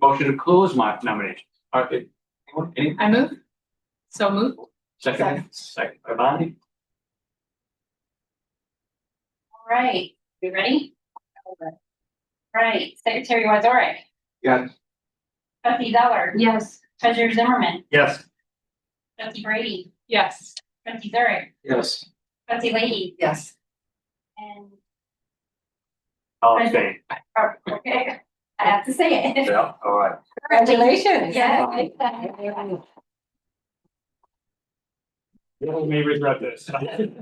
Motion to close my nomination. All right, anyone, any, I move. So move. second, second, by Bonnie? All right, you ready? All Right, Secretary Wazorek, Yes. Trustee Zeller, Yes. Treasurer Zimmerman, Yes. Trustee Brady, Yes. Trustee Zurich, Yes. Trustee Leahy, Yes. and, All in favor? oh, okay, I have to say it. Yeah, all right. Congratulations. Yes. You may regret this. Gotta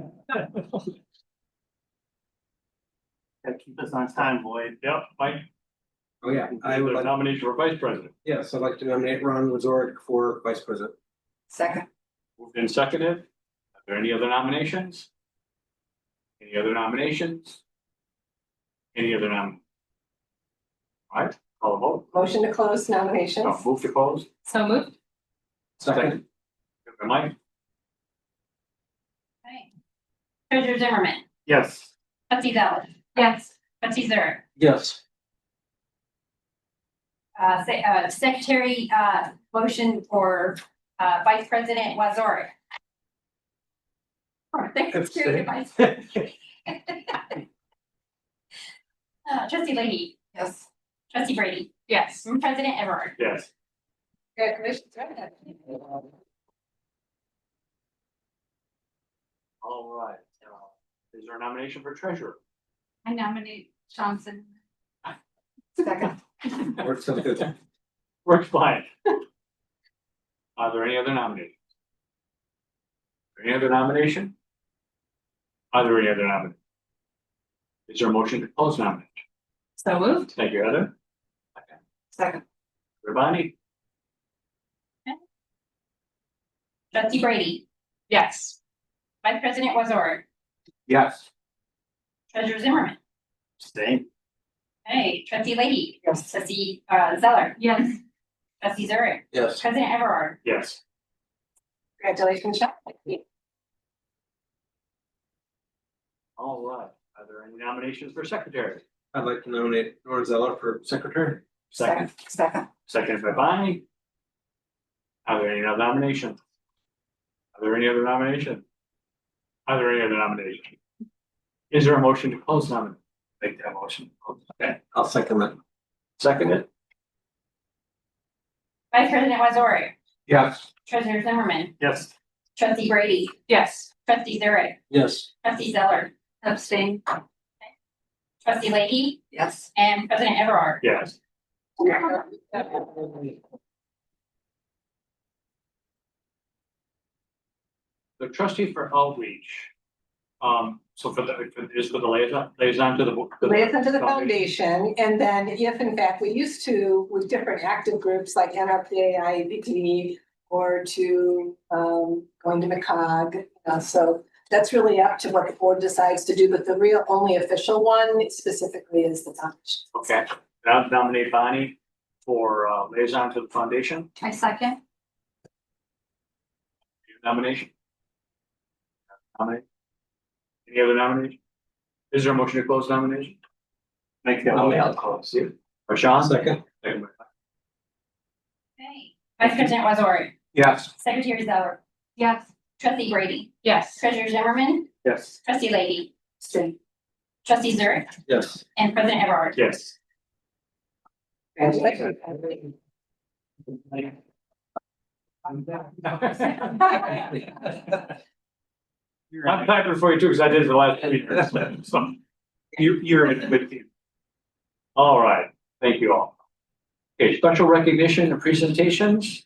keep us on time, Lloyd. Yep, Mike. Oh, yeah, I would The like, nomination for vice president. yes, I'd like to nominate Ron Wazorek for vice president. Second. Moved and seconded. Are there any other nominations? Any other nominations? Any other nom? All right, call a vote. Motion to close nominations. Uh, Move to close. So moved. Second, Second by Mike? Okay. Treasurer Zimmerman, Yes. Trustee Zeller, Yes. Trustee Zurich, yes, uh, se- uh, Secretary, uh, motion for, uh, Vice President Wazorek. Or Secretary Vice. Uh, Trustee Leahy, Yes. Trustee Brady, Yes. President Everard. Yes. Congratulations. All right. Uh, Is there a nomination for treasurer? I nominate Johnson. Second. works out good. Works fine. Are there any other nominations? Any other nomination? Are there any other nominations? Is there a motion to close nomination? So moved. Thank you, Heather. Second. Rabani? Trustee Brady, Yes. Vice President Wazor, Yes. Treasurer Zimmerman, Stay. hey, Trustee Leahy, Yes. Trustee uh, Zeller, Yes. Trustee Zurich, Yes, President Everard. Yes. Congratulations, Sean. All right. Are there any nominations for secretary? I'd like to nominate Norm Zeller for secretary. Second, Second. second by Bonnie. Are there any other nominations? Are there any other nominations? Are there any other nominations? Is there a motion to close nomination? Make that motion. Okay, I'll second that. seconded. Vice President Wazor, Yes. Treasurer Zimmerman, Yes. Trustee Brady, Yes. Trustee Zurich, Yes, Trustee Zeller, Abstain. Trustee Leahy, Yes. and President Everard. Yes. The trustee for outreach. Um, so for the, for- is for the liaison, liaison to the. bo- to the- Liaison to the foundation, and then if in fact we used to with different active groups like NRPA, IEPT, or to um going to McCog, uh, so that's really up to what the board decides to do, but the real only official one specifically is the foundation. Okay, and I'll nominate Bonnie for uh, liaison to the foundation, I second. Your nomination. Nominate. Any other nomination? Is there a motion to close nomination? Make that I'll- I'll close. Rashawn? second, Second by- Okay. Vice President Wazor, Yes. Secretary Zeller, Yes. Trustee Brady, Yes. Treasurer Zimmerman, Yes. Trustee Leahy, Abstain. Trustee Zurich, yes. and President Everard. Yes. Congratulations. I'm clapping for you too, because I did it the last three years. So, You, you're in good team. All right, thank you all. Okay, special recognition and presentations.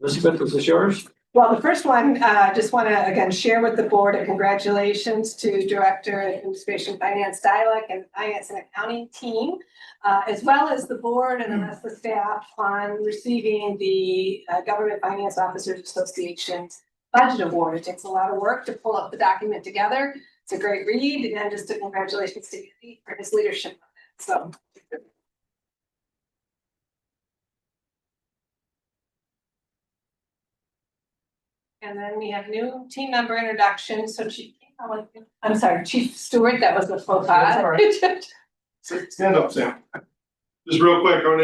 Elizabeth, this is yours. Well, the first one, uh, just want to again share with the board a congratulations to Director of Administration Finance Dialog and Finance and Accounting Team, uh, as well as the board and the rest of the staff on receiving the uh, Government Finance Officers Association's Budget Award. It takes a lot of work to pull up the document together. It's a great read and just a congratulations to Andy for his leadership. on it. So and then we have new team member introduction. So Chief, I want- I'm sorry, Chief Stewart, that was the faux pas. Stand up, Sam. Just real quick, our